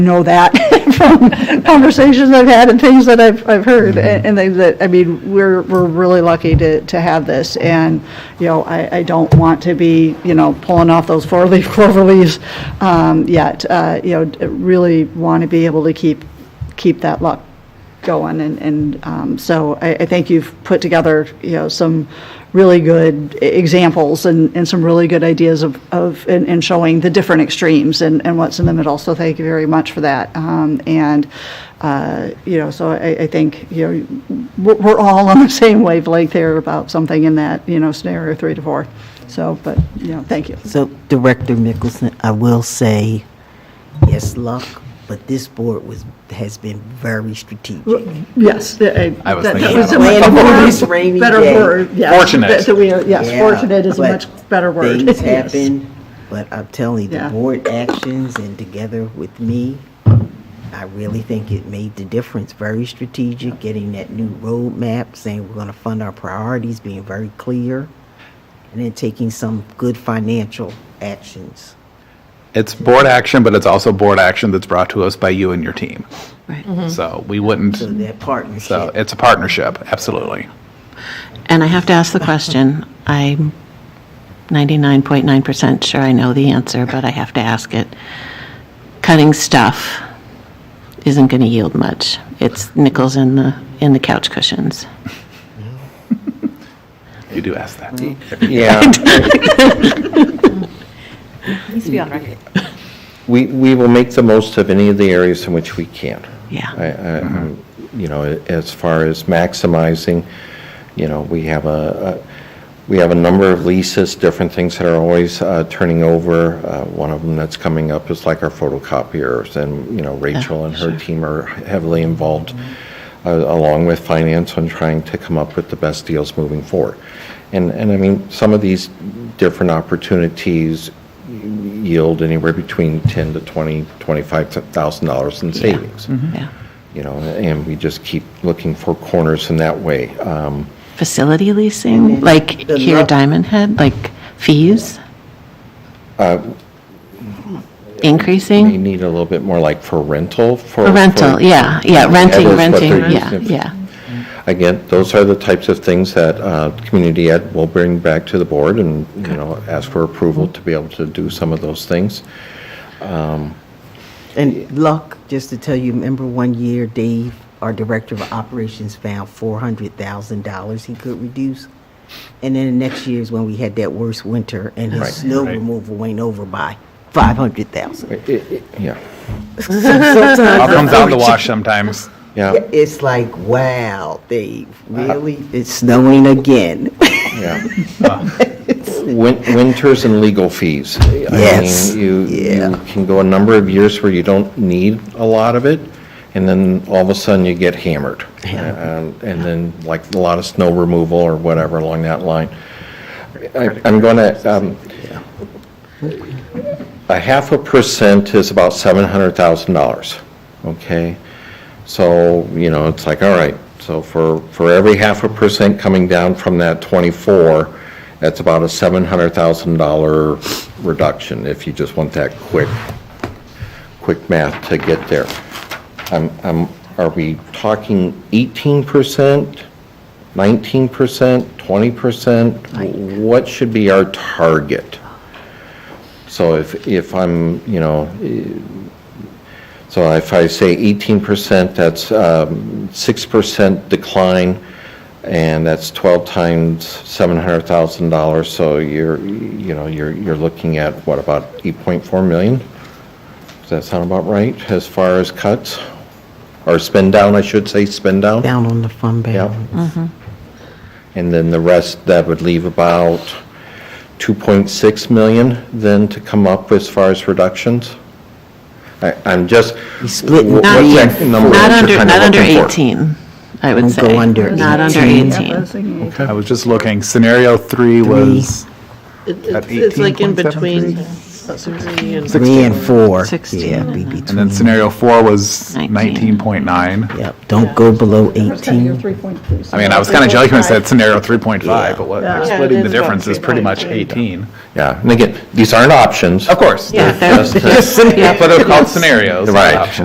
know that from conversations I've had and things that I've, I've heard, and and they, that, I mean, we're, we're really lucky to, to have this, and, you know, I, I don't want to be, you know, pulling off those four-leaf clover leaves, um, yet, uh, you know, d- really want to be able to keep, keep that luck going, and, and, um, so I, I think you've put together, you know, some really good e- examples and, and some really good ideas of, of, and, and showing the different extremes and, and what's in the middle, so thank you very much for that. Um, and, uh, you know, so I, I think, you know, we're, we're all on the same wavelength here about something in that, you know, scenario three to four, so, but, you know, thank you. So Director Mickelson, I will say, yes, luck, but this board was, has been very strategic. Yes. I I was that- that thinking was a much that. about better- Plan for this rainy Better day. word, yes. Fortunate. That- that we are- Yes, Yeah, fortunate is a but much better word. Things Yes. happen, but I'm telling you, Yeah. the board actions and together with me, I really think it made the difference. Very strategic, getting that new roadmap, saying we're gonna fund our priorities, being very clear, and then taking some good financial actions. It's board action, but it's also board action that's brought to us by you and your team. So we Mm-hmm. So Mm-hmm. wouldn't, that partnership. so it's a partnership, absolutely. And I have to ask the question. I'm 99.9% sure I know the answer, but I have to ask it. Cutting stuff isn't going to yield much. It's nickels in the, in the couch cushions. You do ask that. Yeah, Needs to be on record. we, we will make the most of any of the areas in which we can. Yeah. I- I- I'm, You know, as far as maximizing, you know, we have a, a- we have a number of leases, different things that are always uh, turning over. Uh, One of them that's coming up is like our photocopiers, and, you know, Rachel and her team are heavily involved, uh, along with finance, on trying to come up with the best deals moving forward. And, and I mean, some of these different opportunities yield anywhere between 10 to 20, 25,000 dollars in savings. Yeah. Mm-hmm. You know, and we just keep looking for corners in that way. Um, Facility leasing, like the here lo- at Diamond Head, like fees? Uh, We Increasing? need a little bit more like for rental for. Or rental, for- yeah, yeah, renting, that's what renting, they're yeah, using. yeah. Again, those are the types of things that uh, Community Ed will bring back to the board and, you know, ask for approval to be able to do some of those things. And luck, just to tell you, remember one year Dave, our director of operations, found four hundred thousand dollars he could reduce? And then the next year is when we had that worst winter and his snow removal went over by five hundred thousand. It- it- Yeah, All comes out in the wash sometimes. yeah, It's like, wow, Dave, really? It's snowing again. yeah. Win- Winters and legal fees. Yes, I mean, you, yeah. you can go a number of years where you don't need a lot of it, and then all of a sudden you get hammered. Um, And then like a lot of snow removal or whatever along that line. I- I'm um, going to, a half a percent is about $700,000, okay? So, you know, it's like, all right, so for, for every half a percent coming down from that 24, that's about a $700,000 reduction, if you just want that quick, quick math to get there. I'm, I'm, are we talking 18%, 19%, 20%? What should be our target? So if, if I'm, you know, so if I say eighteen percent, that's um, six percent decline, and that's twelve times seven hundred thousand dollars, so you're, you know, you're, you're looking at, what, about eight point four million? Does that sound about right, as far as cuts? Or spend down, I should say, spend down? Down on the fund Yep. balance. And then the rest, that would leave about 2.6 million then to come up as far as reductions? I- I'm just. split wh- Not- what's that number Not that under, you're kinda not under looking for? 18, I would Don't say. go under Not under 18. 18. Yeah, I was thinking eight. I was just looking, scenario three was It- at It's it's like 18.73. in between Three and Three and four. Sixteen Yeah, and be a half. between. And then scenario four was Nineteen. 19.9. Yep, don't go below 18. I mean, I was kind of joking when I said scenario 3.5, but what, Yeah. splitting Yeah, it the is about difference is pretty much 18. Yeah, and again, these aren't options. Of course. Yeah, they're- they're- Just- uh, But they're called scenarios. not Right. options.